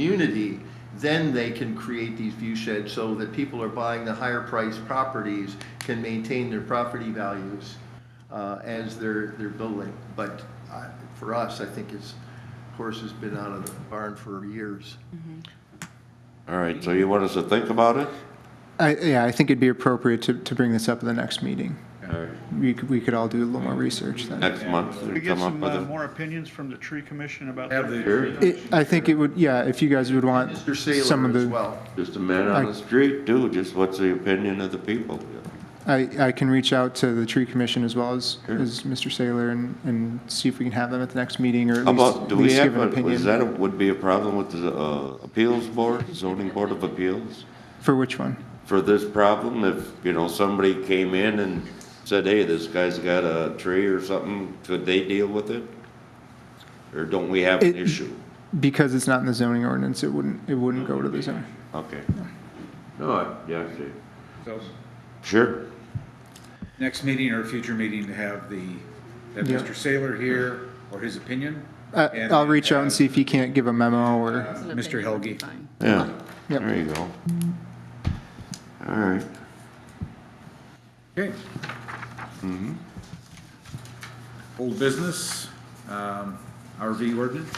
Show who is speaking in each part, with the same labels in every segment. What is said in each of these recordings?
Speaker 1: community, then they can create these view sheds so that people are buying the higher priced properties can maintain their property values uh, as they're, they're building. But I- for us, I think it's, horse has been out of the barn for years.
Speaker 2: All right, so you want us to think about it?
Speaker 3: I, yeah, I think it'd be appropriate to, to bring this up at the next meeting.
Speaker 2: All right,
Speaker 3: We could, we could all do a little more research then.
Speaker 2: next month,
Speaker 4: Could we
Speaker 2: or
Speaker 4: get
Speaker 2: come up
Speaker 4: some
Speaker 2: with
Speaker 4: uh,
Speaker 2: a.
Speaker 4: more opinions from the tree commission about?
Speaker 5: Have
Speaker 4: that?
Speaker 5: the-
Speaker 2: Sure,
Speaker 3: It, I think it would, yeah, if you guys would want
Speaker 1: Mr.
Speaker 3: some of
Speaker 1: Saylor as
Speaker 3: the,
Speaker 1: well.
Speaker 2: just a man on the street too, just what's the opinion of the people?
Speaker 3: I, I can reach out to the tree commission as well as,
Speaker 2: Sure.
Speaker 3: as Mr. Saylor and, and see if we can have them at the next meeting or at
Speaker 2: How
Speaker 3: least,
Speaker 2: about,
Speaker 3: at
Speaker 2: do we
Speaker 3: least give
Speaker 2: have,
Speaker 3: an
Speaker 2: a- is
Speaker 3: opinion.
Speaker 2: that, a- would be a problem with the uh, appeals board, zoning board of appeals?
Speaker 3: For which one?
Speaker 2: For this problem, if, you know, somebody came in and said, hey, this guy's got a tree or something, could they deal with it? Or don't we have an
Speaker 3: It-
Speaker 2: issue?
Speaker 3: Because it's not in the zoning ordinance, it wouldn't, it wouldn't go to the zoning.
Speaker 2: Okay. No, I, yeah, I see.
Speaker 5: So,
Speaker 2: Sure.
Speaker 5: Next meeting or future meeting to have the, have
Speaker 3: Yeah.
Speaker 5: Mr. Saylor here or his opinion?
Speaker 3: I, I'll reach out and see if he can't give a memo or,
Speaker 5: Uh, Mr. Helge.
Speaker 2: Yeah,
Speaker 3: Yep.
Speaker 2: there you go. All right.
Speaker 5: Okay. Old business, um, RV ordinance.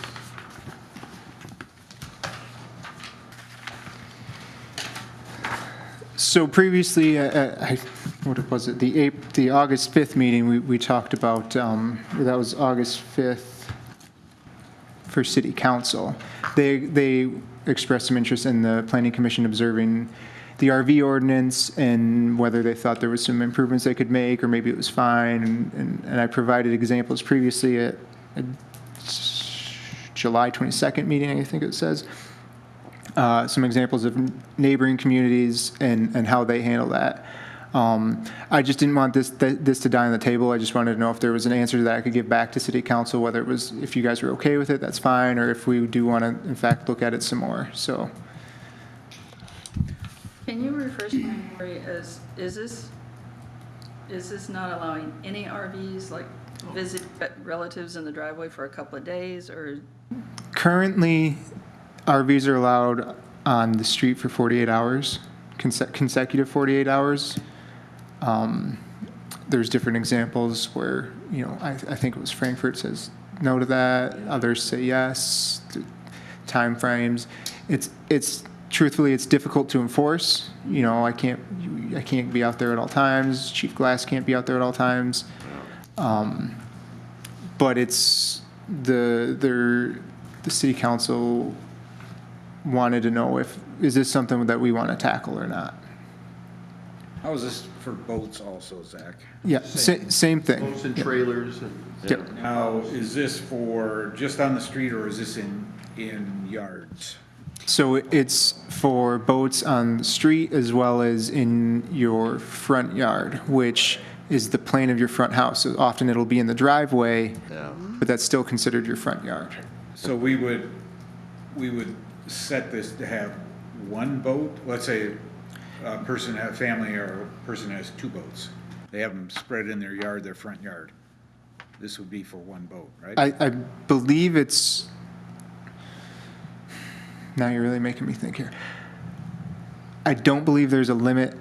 Speaker 3: So previously, uh, uh, I- what was it, the Ap- the August 5th meeting, we we talked about, um, that was August 5th for city council. They, they expressed some interest in the planning commission observing the RV ordinance and whether they thought there was some improvements they could make, or maybe it was fine. And- And and I provided examples previously at at July 22nd meeting, I think it says uh, some examples of neighboring communities and, and how they handle that. Um, I just didn't want this th- this to die on the table. I just wanted to know if there was an answer that I could give back to City Council, whether it was if you guys were okay with it, that's fine, or if we do want to in fact look at it some more. So
Speaker 6: Can you refresh my memory as, is this, is this not allowing any RVs, like visit relatives in the driveway for a couple of days, or
Speaker 3: currently, RVs are allowed on the street for 48 hours, conse- consecutive 48 hours. Um, there's different examples where, you know, I, I think it was Frankfurt says no to that, others say yes, th- timeframes. It's, it's, truthfully, it's difficult to enforce. You know, I can't, I can't be out there at all times, Chief Glass can't be out there at all times. Um, But it's, the, their, the city council wanted to know if, is this something that we want to tackle or not?
Speaker 5: How is this for boats also, Zach?
Speaker 3: Yeah, sa- same thing.
Speaker 1: Boats and trailers and.
Speaker 3: Yep.
Speaker 5: Now, is this for just on the street or is this in, in yards?
Speaker 3: So it's for boats on the street as well as in your front yard, which is the plane of your front house. So Often it'll be in the driveway, but that's still considered your front yard.
Speaker 5: So we would, we would set this to have one boat, let's say a person, a family or a person has two boats. They have them spread in their yard, their front yard. This would be for one boat, right?
Speaker 3: I, I believe it's, now you're really making me think here. I don't believe there's a limit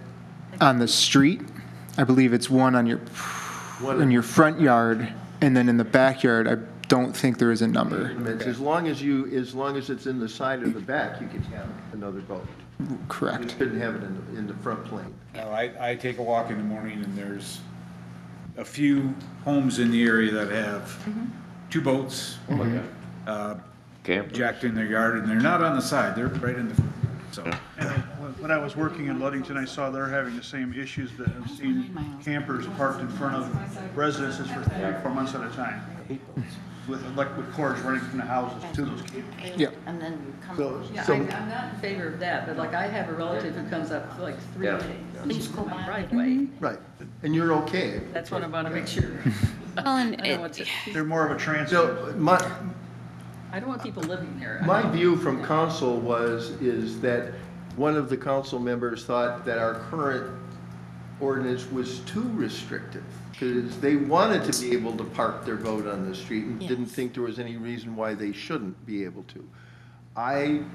Speaker 3: on the street. I believe it's one on your, in your front yard, and then in the backyard, I don't think there is a number.
Speaker 1: It's As long as you, as long as it's in the side or the back, you can have another boat. You
Speaker 3: Correct.
Speaker 1: couldn't have it in, the- in the front plane.
Speaker 5: Now, I, I take a walk in the morning and there's a few homes in the area that have two boats uh,
Speaker 2: Camp.
Speaker 5: jacked in their yard and they're not on the side, they're right in the, front yard. so.
Speaker 4: When- When I was working in Ludington, I saw they're having the same issues that I've seen campers parked in front of residences for three, four months at a time. With electric cords running from the houses to those campers.
Speaker 3: Yeah.
Speaker 7: And then you come.
Speaker 1: So-
Speaker 6: Yeah, I'm, I'm not in favor of that, but like, I have a relative who comes up like three
Speaker 2: Yeah.
Speaker 6: days. Oh,
Speaker 7: Please go
Speaker 6: My
Speaker 7: by.
Speaker 6: driveway,
Speaker 1: Right, and you're okay.
Speaker 6: that's what I wanna make sure.
Speaker 7: Well, and
Speaker 6: I
Speaker 7: it-
Speaker 6: don't want to,
Speaker 4: They're more of a transit.
Speaker 1: So my,
Speaker 6: I don't want people living there. I
Speaker 1: my
Speaker 6: don't-
Speaker 1: view from council was, is that one of the council members thought that our current ordinance was too restrictive. Because they wanted to be able to park their boat on the street and didn't
Speaker 7: Yes.
Speaker 1: think there was any reason why they shouldn't be able to. I